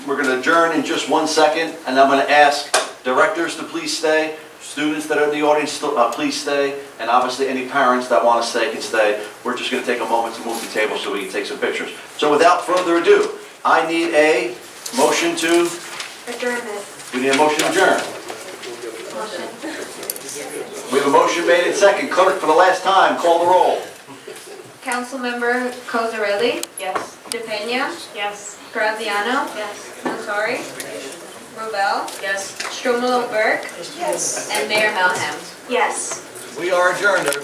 We're going to adjourn in just one second, and I'm going to ask directors to please stay, students that are in the audience, still- uh, please stay, and obviously any parents that want to stay can stay. We're just going to take a moment to move the table so we can take some pictures. So without further ado, I need a motion to, Adjournment. we need a motion to adjourn. Motion. We have a motion made and second. Clerk, for the last time, call the roll. Councilmember Cosarelli? Yes. DePena? Yes. Graziano? Yes. Natori? Rovell? Yes. Strumelob Burke? Yes. And Mayor Melham? Yes. We are adjourned, everybody.